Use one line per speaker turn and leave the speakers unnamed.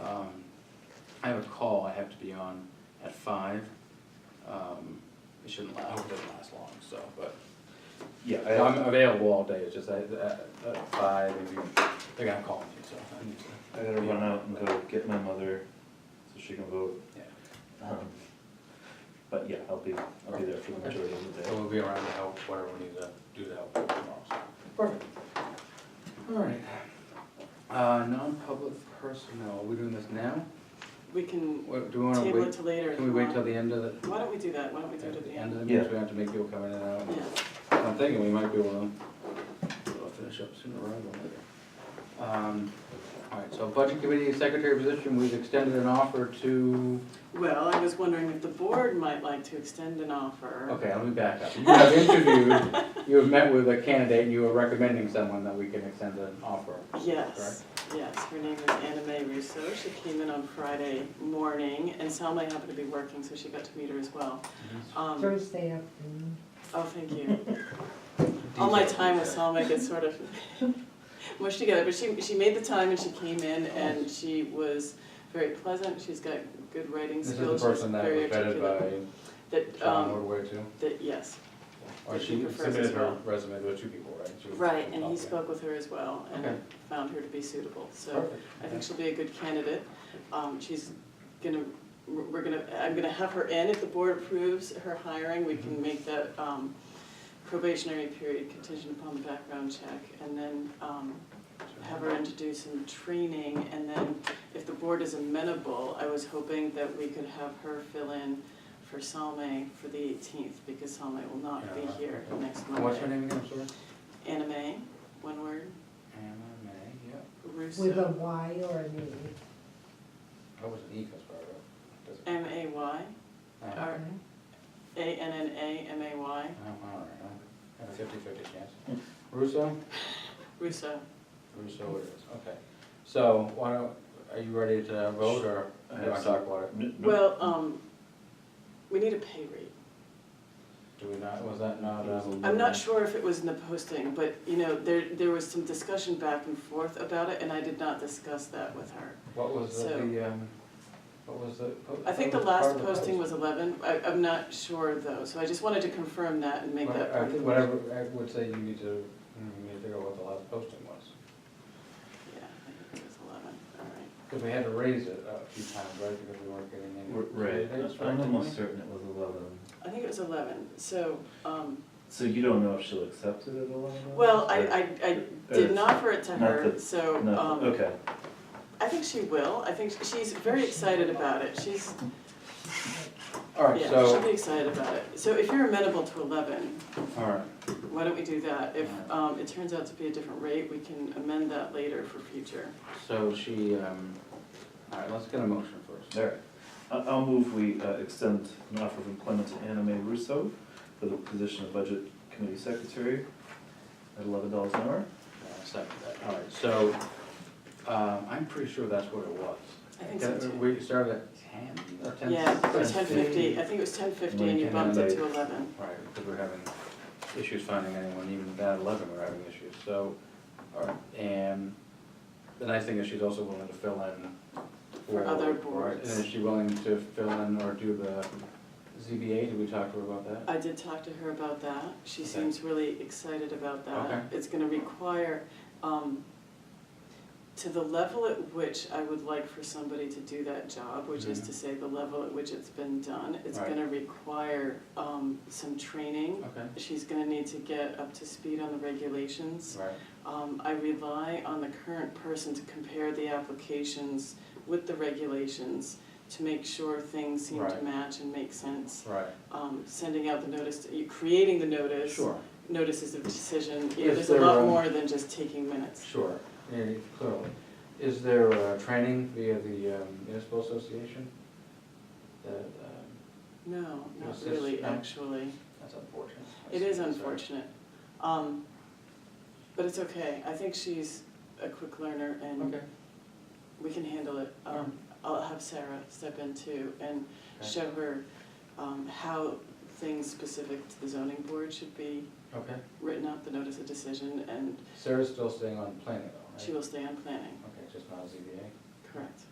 Um, I have a call I have to be on at five. Um, It shouldn't last, I hope it doesn't last long, so, but,
Yeah,
no, I'm
I,
available all day, it's just I- at, at five, maybe, they're gonna call me, so I need to,
I gotta run out and go get my mother, so she can vote.
yeah.
Um, But yeah, I'll be, I'll be there for the majority of the
So
day.
we'll be around to help, whatever we need to do to help tomorrow, so.
Perfect.
All right. Uh, non-public personnel, are we doing this now?
We can
What, do we wanna
table it
wait?
to later. if
Can we
you
wait
want.
till the end of the,
Why don't we do that? Why don't we do it
at
at
the end of the
Yeah.
meeting, so we have to make people come in and out?
Yeah,
I'm thinking we might be able to uh, finish up sooner rather than later. Um, All right, so budget committee secretary position, we've extended an offer to,
well, I was wondering if the board might like to extend an offer.
okay, let me back up. You have interviewed, you have met with a candidate and you are recommending someone that we can extend an offer.
Yes, yes, her name is Anna Mae Russo, she came in on Friday morning, and Salma happened to be working, so she got to meet her as well. Um,
Thursday afternoon.
oh, thank you. All my time with Salma gets sort of mushed together, but she, she made the time and she came in
Oh.
and she was very pleasant, she's got good writing
This is the
skills, she's
person that
very
was vetted
articulate.
by
That,
John
um,
Woodward too?
that, yes,
Or
that she
she
prefers
submitted
as
her
well.
resume to two people, right? She was-
right, and
Okay.
he spoke with her as well
Okay.
and found her to be suitable, so
Perfect.
I think she'll be a good candidate. Um, she's gonna, we're we're gonna, I'm gonna have her in, if the board approves her hiring, we
Mm-hmm.
can make that, um, probationary period contingent upon the background check, and then, um, have her in to do some training, and then if the board is amenable, I was hoping that we could have her fill in for Salme for the eighteenth, because Salme will not be here next
And What's her
Monday.
name again, I'm sorry?
Anime, one word,
Anna May, yeah.
With a
Russo,
Y or an E?
That was an E, that's what I wrote. Doesn't-
M A Y,
Uh,
or A N N A M A Y,
Oh, all right, I have a fifty-fifty chance. Russo?
Russo.
Russo it is, okay. So, why don't, are you ready to vote, or
I
do you
have
want to talk about it?
N- n-
Well, um, we need a pay rate.
Do we not, was that not, um?
I'm not sure if it was in the posting, but, you know, there, there was some discussion back and forth about it, and I did not discuss that with her.
What was the-
So-
the, um, what was the?
I think the last posting was eleven, I, I'm not sure though, so I just wanted to confirm that and make that
I
part of the.
think whatever, I would say you need to, you need to figure out what the last posting was.
Yeah, I think it was eleven, all right.
Because we had to raise it a few times, right, because we weren't getting any.
r- Right,
candidates,
I'm
didn't we?
almost certain it was eleven.
I think it was eleven, so, um,
So you don't know if she'll accept it at eleven?
well, I,
Or-
I, I did
Uh,
not offer it to
not
her,
the-
so,
No,
um,
okay.
I think she will, I think she's very excited about it, she's,
All right,
yeah, she'll
so,
be excited about it. So if you're amenable to eleven,
all right,
why don't we do that? If,
Alright.
um, it turns out to be a different rate, we can amend that later for future.
so she, um, all right, let's get a motion first.
All right. I- I'll move we uh, extend an offer of employment to Anna Mae Russo for the position of Budget Committee Secretary at eleven dollars an hour.
Uh, Second that, all right, so, um, I'm pretty sure that's what it was.
I think so too.
We started at ten, or ten?
Yeah, or ten fifty, I think it was ten fifty and you bumped it to eleven.
Right, because we're having issues finding anyone, even at that eleven, we're having issues, so, all right, and the nice thing is she's also willing to fill in.
For other
right,
boards.
And is she willing to fill in or do the ZBA, did we talk to her about that?
I did talk to her about that, she
Okay.
seems really excited about that.
Okay.
It's gonna require, um, to the level at which I would like for somebody to do that job, which is
Mhm.
to say the level at which it's been done, it's
Right.
gonna require, um, some training.
Okay,
She's gonna need to get up to speed on the regulations.
right,
Um, I rely on the current person to compare the applications with the regulations to make sure things seem to
Right.
match and make sense.
right,
Um, sending out the notice, you- creating the notice,
sure.
notices of decision, you know,
Is
there's a
there,
lot
um,
more than just taking minutes.
Sure, yeah, clearly. Is there uh training via the um, municipal association? That, um,
No, not
Is this-
really,
no?
actually.
that's unfortunate.
It is
Sorry.
unfortunate. Um, but it's okay, I think she's a quick learner and
Okay,
we can handle it.
Alright.
Um, I'll have Sarah step in too and
Okay.
show her, um, how things specific to the zoning board should be
okay.
written up, the notice of decision, and
Sarah's still staying on planning though, right?
she will stay on planning,
Okay, just not ZBA?
correct?